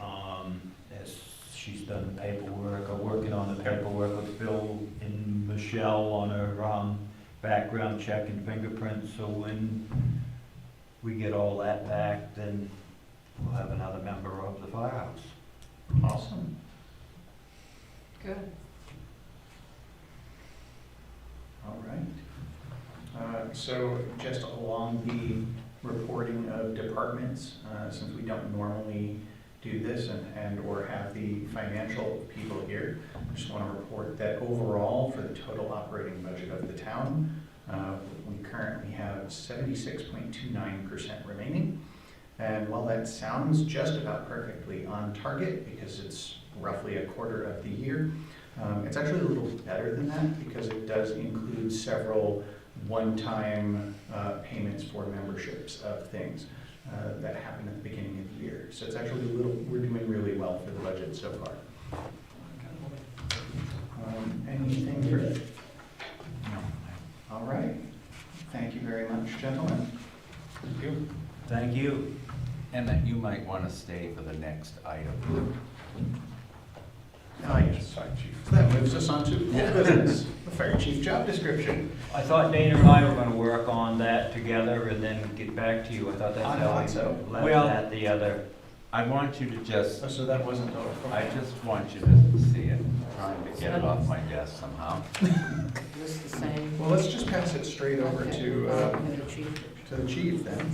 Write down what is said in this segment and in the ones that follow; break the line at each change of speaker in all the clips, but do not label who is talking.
um, She's done the paperwork, or working on the paperwork with Phil and Michelle on her, um, background check and fingerprints, so when we get all that back, then we'll have another member of the firehouse.
Awesome.
Good.
All right. Uh, So just along the reporting of departments, uh, since we don't normally do this and, and/or have the financial people here, I just want to report that overall, for the total operating budget of the town, uh, we currently have seventy-six point two nine percent remaining. And while that sounds just about perfectly on target, because it's roughly a quarter of the year, Um, It's actually a little better than that because it does include several one-time uh, payments for memberships of things uh, that happen at the beginning of the year. So it's actually a little, we're doing really well for the budget so far. Um, Anything for? No. All right. Thank you very much, gentlemen. Thank you.
Thank you.
And that you might want to stay for the next item.
Ah, yes. So That moves us on to old business, the fire chief job description.
I thought Dana and I were gonna work on that together and then get back to you. I thought that's
I
how I
thought so.
left
Well-
that the other.
I want you to just,
Oh, So that wasn't all.
I just want you to see it, trying to get it off my desk somehow.
Just the same.
Well, let's just pass it straight over
Okay.
to, uh,
And the chief.
to the chief then.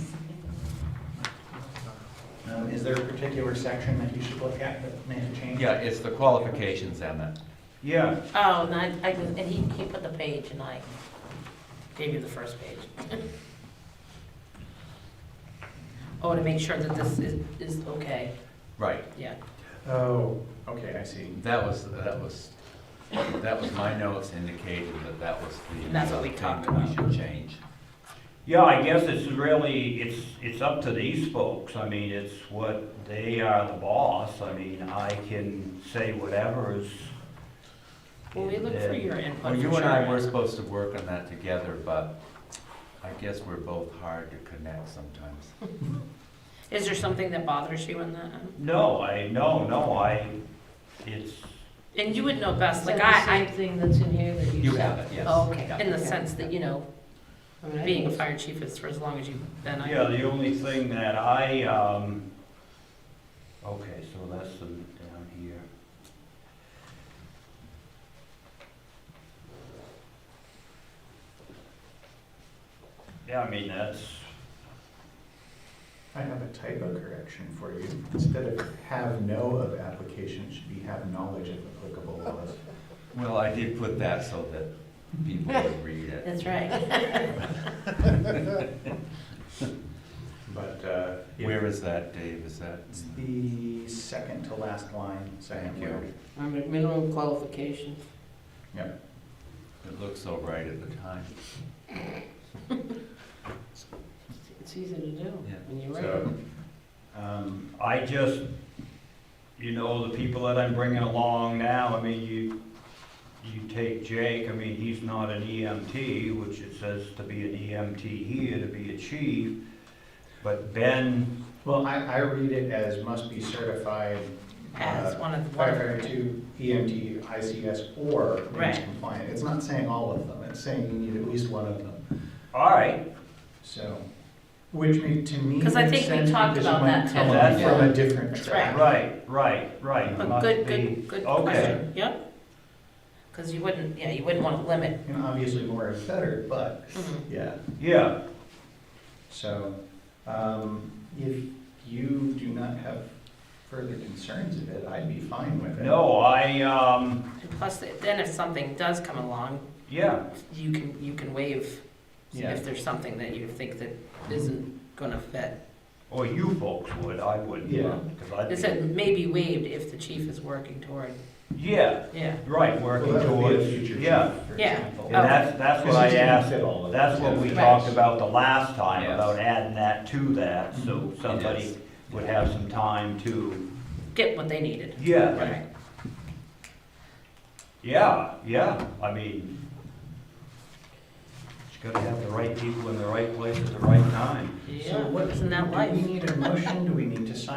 Um, Is there a particular section that you should look at that may have changed?
Yeah, it's the qualifications, Emmett.
Yeah,
Oh, and I, I just, and he, he put the page and I gave you the first page. Oh, to make sure that this is, is okay,
Right,
yeah.
Oh, okay, I see.
that was, that was, that was my notes indicating that that was the. uh,
And that's what we
thing
talked
that
about.
We should change.
yeah, I guess it's really, it's, it's up to these folks. I mean, it's what, they are the boss. I mean, I can say whatever is.
Well, we look for
in
your
there.
input.
Well,
for
you and I
sure.
were supposed to work on that together, but I guess we're both hard to connect sometimes.
Is there something that bothers you in that?
No, I, no, no, I, it's,
And you would know best,
Is
like
that the
I,
same thing that's in here that you
You
said?
have
Oh,
it, yes.
I, okay,
Yeah.
in the sense that, you know,
I mean, I
being a
think it's-
fire chief is for as long as you've been. I-
yeah, the only thing that I, um, okay, so that's the, down here. Yeah, I mean, that's,
I have a typo correction for you. Instead of have know of application, it should be have knowledge of applicable laws.
Well, I did put that so that people would read it.
That's right.
But, uh, yeah.
Where is that, Dave? Is that? hmm,
It's the second to last line, second
Thank you.
word.
I mean, minimum qualifications.
It looked so right at the time.
It's easy to do
Yeah.
when you're right.
So, um,
I just, you know, the people that I'm bringing along now, I mean, you, you take Jake, I mean, he's not an EMT, which it says to be an EMT here, to be a chief. But Ben,
well, I, I read it as must be certified uh,
As one of the.
firefighter two, EMT, ICS, or NICE
Right.
compliant. It's not saying all of them, it's saying you need at least one of them,
all right,
so, which made, to me, makes
Because I think
sense
we
because you
talked about
might
that
come
too.
up
That's
from a
right.
different
That's
track.
right, right, right.
A
must
good,
be-
good, good
okay.
question, yep. Because you wouldn't, yeah, you wouldn't want to limit.
And obviously more is better, but,
Mhm.
yeah,
Yeah,
so, um, if you do not have further concerns of it, I'd be fine with it.
no, I, um,
And plus, then if something does come along,
yeah,
you can, you can waive
Yeah. Mm-hmm.
if there's something that you think that isn't gonna fit.
or you folks would, I wouldn't.
Yeah.
Cause I'd be,
It said may be waived if the chief is working toward,
yeah,
yeah.
right,
Well,
working
that would be a
towards,
future
yeah.
chief, for
Yeah.
example.
And that's, that's what I
Because you can't
asked
fit all of
That's what
them.
we
Right.
talked about the last time,
Yes.
about adding that to that, so somebody
Yes.
would have some time to,
Get what they needed.
yeah,
Right.
yeah, yeah, I mean, just gotta have the right people in the right place at the right time.
So
Yeah,
what,
isn't that life?
Do we need a motion, do we need to sign